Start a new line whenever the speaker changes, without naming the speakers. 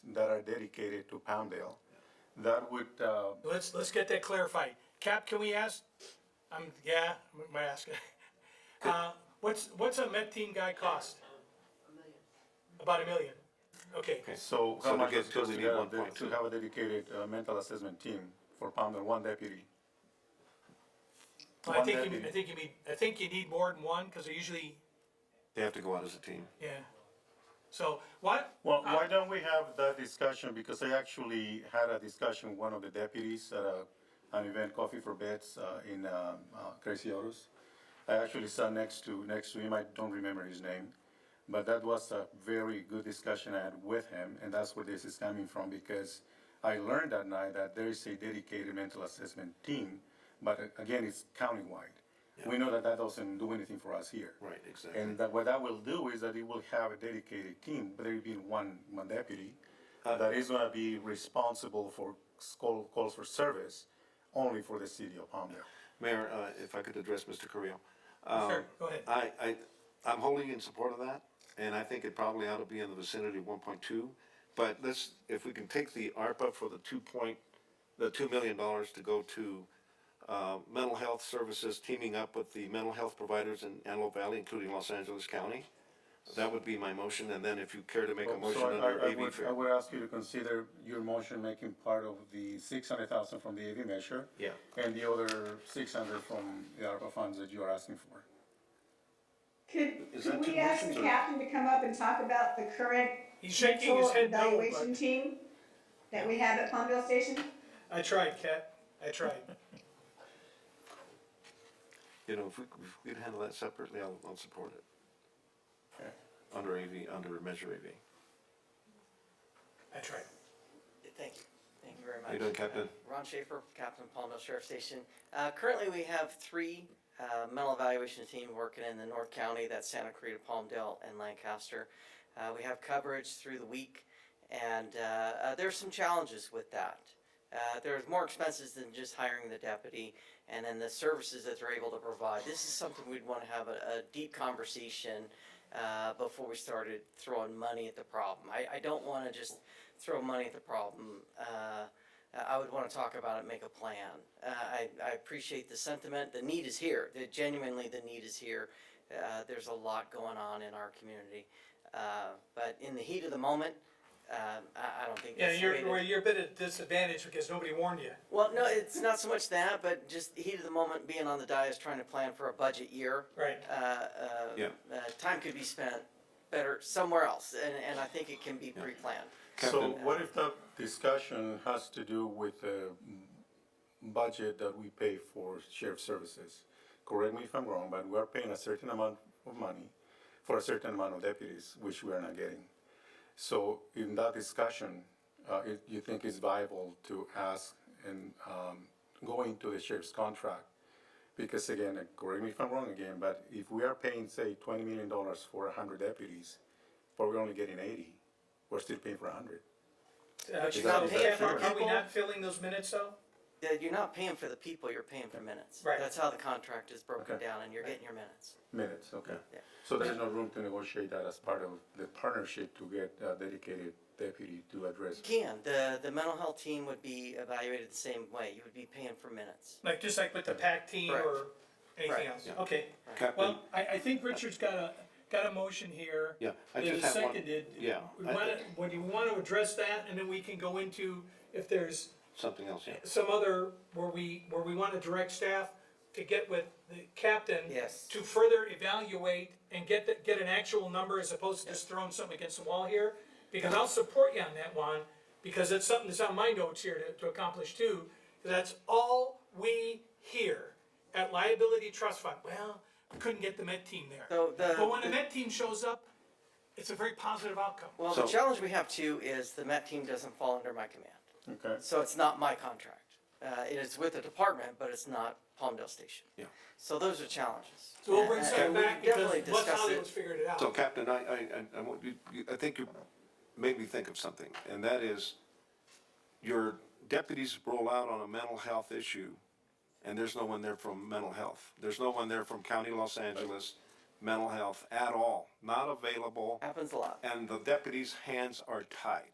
that are dedicated to Palmdale. That would, uh,
Let's, let's get that clarified. Cap, can we ask, um, yeah, we might ask. Uh, what's, what's a med team guy cost? About a million? Okay,
so
So
how
to
much
get-
it costs
so we
to
need
have a
one
de-
point
to
two.
have a dedicated uh, mental assessment team for Palmdale, one deputy?
I
One
think you,
deputy.
I think you need, I think you need more than one, cause they usually,
They have to go out as a team.
yeah. So, what?
Well, why don't we have that discussion, because I actually had a discussion with one of the deputies at a, an event, Coffee for Bets, uh, in, um, uh, Crazy Autos. I actually sat next to, next to him, I don't remember his name, but that was a very good discussion I had with him, and that's where this is coming from, because I learned that night that there is a dedicated mental assessment team, but uh, again, it's countywide. We know that that doesn't do anything for us here.
Right, exactly.
And that what that will do is that it will have a dedicated team, but there will be one, one deputy uh,
Uh-huh.
that is gonna be responsible for s- call, calls for service only for the city of Palmdale.
Mayor, uh, if I could address Mr. Carrillo.
Sure,
Um,
go ahead.
I, I, I'm wholly in support of that, and I think it probably ought to be in the vicinity of one point two. But let's, if we can take the ARPA for the two point, the two million dollars to go to, uh, mental health services, teaming up with the mental health providers in Antelope Valley, including Los Angeles County. That would be my motion, and then if you care to make a motion
So I- I-
under
I
AV
would- I
fair.
would ask you to consider your motion making part of the six hundred thousand from the AV measure.
Yeah.
And the other six hundred from the ARPA funds that you are asking for.
Could,
Is that
could
too
we
much
ask the
to-
captain to come up and talk about the current
He's shaking his
control
head no, but-
evaluation team that we have at Palmville Station?
I tried, Cap, I tried.
You know, if we, if we could handle that separately, I'll, I'll support it.
Okay.
Under AV, under Measure AV.
I tried.
Thank you. Thank you very much. Uh,
How you doing, Captain?
Ron Schaefer, Captain Palmdale Sheriff Station. Uh, currently, we have three, uh, mental evaluation team working in the North County, that's Santa Clarita, Palmdale, and Lancaster. Uh, we have coverage through the week, and, uh, uh, there's some challenges with that. Uh, there's more expenses than just hiring the deputy, and then the services that they're able to provide. This is something we'd wanna have a, a deep conversation, uh, before we started throwing money at the problem. I, I don't wanna just throw money at the problem, uh, uh, I would want to talk about it, make a plan. Uh, I, I appreciate the sentiment. The need is here. The, genuinely, the need is here. Uh, there's a lot going on in our community. Uh, but in the heat of the moment, um, I, I don't think
Yeah,
that's the way
you're,
to-
well, you're a bit at a disadvantage because nobody warned you.
Well, no, it's not so much that, but just the heat of the moment, being on the dais, trying to plan for a budget year.
Right.
Uh, uh,
Yeah.
uh, time could be spent better somewhere else, and, and I think it can be pre-planned.
So
Captain.
what if that discussion has to do with the budget that we pay for sheriff services? Correct me if I'm wrong, but we are paying a certain amount of money for a certain amount of deputies, which we are not getting. So in that discussion, uh, it- you think it's viable to ask and um, go into the sheriff's contract? Because again, uh, correct me if I'm wrong again, but if we are paying, say, twenty million dollars for hundred deputies, but we're only getting eighty, we're still paying for hundred.
Uh,
you're not
so,
paying
Cap,
for
are- Are we
people.
not filling those minutes though?
Yeah, You're not paying for the people, you're paying for minutes.
Right.
That's how the contract is broken
Okay.
down, and you're getting your minutes.
Minutes, okay.
Yeah.
So there's no room to negotiate that as part of the partnership to get a dedicated deputy to address.
You can, the, the mental health team would be evaluated the same way, you would be paying for minutes.
Like, just like with the PAC team
Correct.
or anything
Right.
else, okay.
Captain.
Well, I, I think Richard's got a, got a motion here.
Yeah, I
that
just
is
have one-
seconded.
yeah,
We
I-
wanna, would you wanna address that, and then we can go into if there's
Something else, yeah.
some other, where we, where we wanna direct staff to get with the captain.
Yes.
To further evaluate and get, the- get an actual number as opposed to just throwing something against the wall here. Because I'll support you on that one, because it's something that's on my notes here to, to accomplish too. That's all we hear at liability trust fund, well, we couldn't get the med team there.
So the-
But when the med team shows up, it's a very positive outcome.
Well, the
So-
challenge we have too is the MET team doesn't fall under my command,
Okay.
so it's not my contract. Uh, it is with the department, but it's not Palmdale Station.
Yeah.
So those are challenges.
So we'll bring
And-
something
and we
back because
definitely
West
discuss
Hollywood's
it.
figured it out.
So Captain, I, I, I- I, want you, you- I think you made me think of something, and that is your deputies roll out on a mental health issue, and there's no one there from mental health. There's no one there from County Los Angeles, mental health at all, not available,
Happens a lot.
and the deputies' hands are tied.